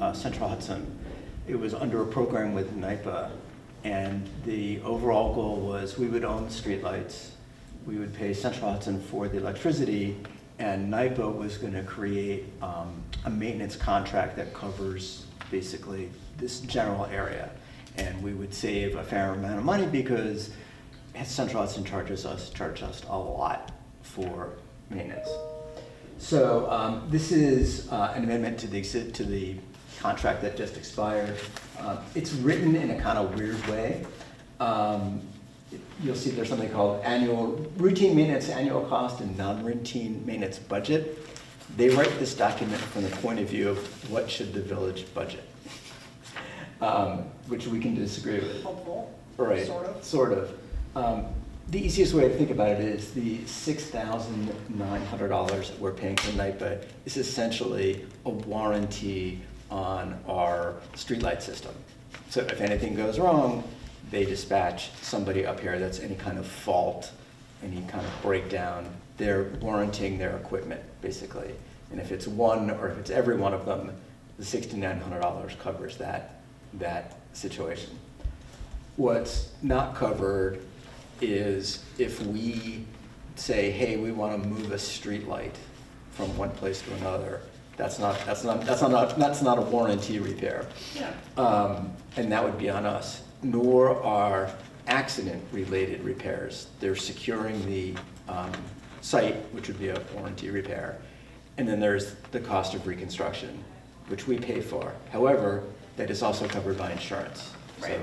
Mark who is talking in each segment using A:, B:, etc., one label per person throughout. A: uh, Central Hudson. It was under a program with NIPA, and the overall goal was we would own the streetlights, we would pay Central Hudson for the electricity, and NIPA was gonna create um, a maintenance contract that covers basically this general area. And we would save a fair amount of money because Central Hudson charges us, charged us a lot for maintenance. So um, this is uh, an amendment to the, exi- to the contract that just expired. Uh, It's written in a kind of weird way. Um, You'll see there's something called annual, routine maintenance annual cost and non-routine maintenance budget. They write this document from the point of view of what should the village budget, um, which we can disagree with.
B: Helpful.
A: Right.
B: Sort of.
A: Sort of. Um, the easiest way to think about it is the six thousand nine hundred dollars that we're paying for NIPA is essentially a warranty on our streetlight system. So if anything goes wrong, they dispatch somebody up here that's any kind of fault, any kind of breakdown. They're warranting their equipment, basically. And if it's one or if it's every one of them, the sixty-nine hundred dollars covers that, that situation. What's not covered is if we say, hey, we want to move a streetlight from one place to another, that's not, that's not, that's not, that's not a warranty repair.
B: Yeah.
A: Um, and that would be on us, nor are accident-related repairs. They're securing the, um, site, which would be a warranty repair. And then there's the cost of reconstruction, which we pay for. However, that is also covered by insurance. So-
B: Right.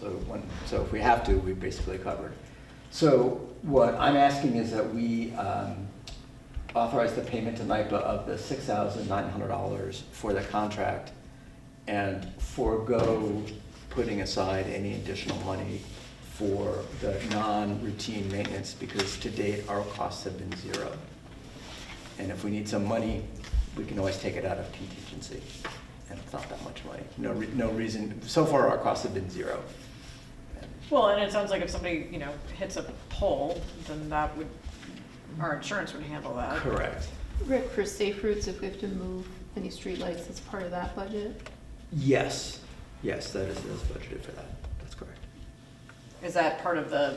A: So when, so if we have to, we're basically covered. So what I'm asking is that we, um, authorize the payment to NIPA of the six thousand nine hundred dollars for the contract and forego putting aside any additional money for the non-routine maintenance, because to date, our costs have been zero. And if we need some money, we can always take it out of contingency, and it's not that much money. No, re- no reason, so far, our costs have been zero.
B: Well, and it sounds like if somebody, you know, hits a pole, then that would, our insurance would handle that.
A: Correct.
C: Rick, for safe routes, if we have to move any streetlights, that's part of that budget?
A: Yes, yes, that is, that's budgeted for that, that's correct.
B: Is that part of the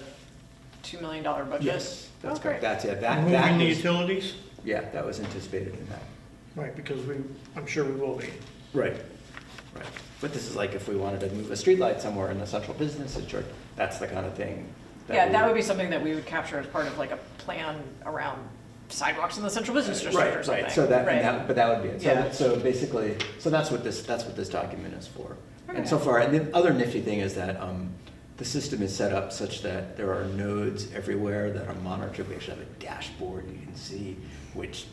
B: two million dollar budget?
A: Yes, that's
B: Oh,
A: correct,
B: great.
A: that's it, that,
D: Moving
A: that
D: the
A: is.
D: utilities?
A: Yeah, that was anticipated in that.
D: Right, because we, I'm sure we will be.
A: Right. Right. But this is like if we wanted to move a streetlight somewhere in the central business district, that's the kind of thing.
B: Yeah,
A: we-
B: that would be something that we would capture as part of like a plan around sidewalks in the central business district or
A: Right,
B: something.
A: right, so that, and
B: Right.
A: that, but that would be it. So
B: Yeah.
A: that- So basically, so that's what this, that's what this document is for. And so
B: Alright.
A: far, and the other nifty thing is that, um, the system is set up such that there are nodes everywhere that are monitored. We actually have a dashboard, you can see which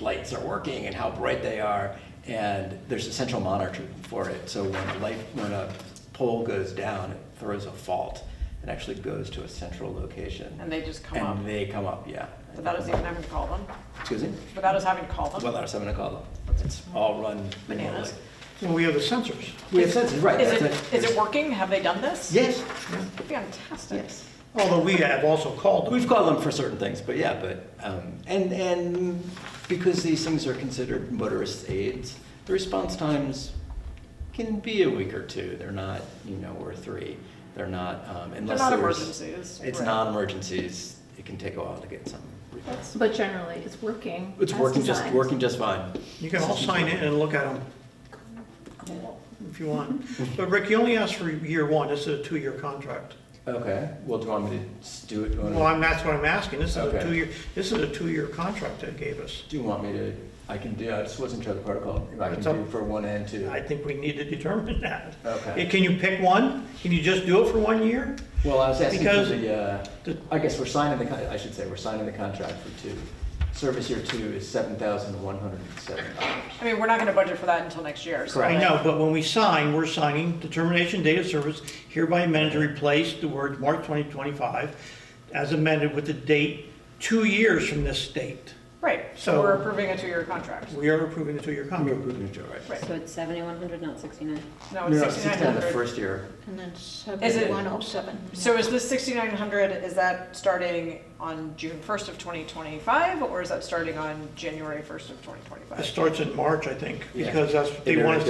A: lights are working and how bright they are. And there's a central monitor for it, so when a light, when a pole goes down, it throws a fault. It actually goes to a central location.
B: And they just come
A: And
B: up.
A: they come up, yeah.
B: Without us even having to call them,
A: Excuse me?
B: without us having to call them.
A: Well, that's what I'm gonna call them. It's all run
B: Bananas.
A: remotely.
D: Well, we have the sensors.
A: We have sensors, right.
B: Is
A: that's
B: it, is it working? Have they done this?
A: Yes,
B: Fantastic.
A: yes.
D: Although we have also called them.
A: We've called them for certain things, but yeah, but, um, and, and because these things are considered motorist aids, the response times can be a week or two. They're not, you know, or three. They're not, um,
B: They're
A: unless
B: not
A: there's.
B: emergencies.
A: It's
B: right.
A: non-emergencies. It can take a while to get some. repair.
B: That's-
C: But generally, it's working.
A: It's
C: as
A: working just,
C: designed.
A: working just fine.
D: You can all sign in and look at them if you want.
A: Mm-hmm.
D: But Rick, you only asked for year one. This is a two-year contract.
A: Okay, well, do you want me to s- do it? do you want me-
D: Well, I'm, that's what I'm asking. This is a
A: Okay.
D: two-year, this is a two-year contract they gave us.
A: Do you want me to, I can do, I just wasn't sure of the protocol, if I can
D: It's up-
A: do for one and two.
D: I think we need to determine that.
A: Okay.
D: Can you pick one? Can you just do it for one year?
A: Well, I was asking for
D: Because-
A: the, uh,
D: the-
A: I guess we're signing the, con- I should say, we're signing the contract for two. Service year two is seven thousand one hundred and seven dollars.
B: I mean, we're not gonna budget for that until next year, so.
A: Correct.
D: I know, but when we sign, we're signing determination date of service hereby amended to replace the word March 2025 as amended with the date two years from this date.
B: Right, so
D: So-
B: we're approving a two-year contract.
D: We are approving the two-year contract.
A: approving it, right?
B: Right.
E: So it's seventy-one hundred, not sixty-nine.
B: No,
A: No, no,
B: it's
A: six down the
B: 6,900.
A: first year.
F: And then
B: Is it-
F: 7107.
B: So is this 6,900, is that starting on June 1st of 2025, or is that starting on January 1st of
D: It
B: 2025?
D: starts in March, I think,
A: Yeah.
D: because that's what they want us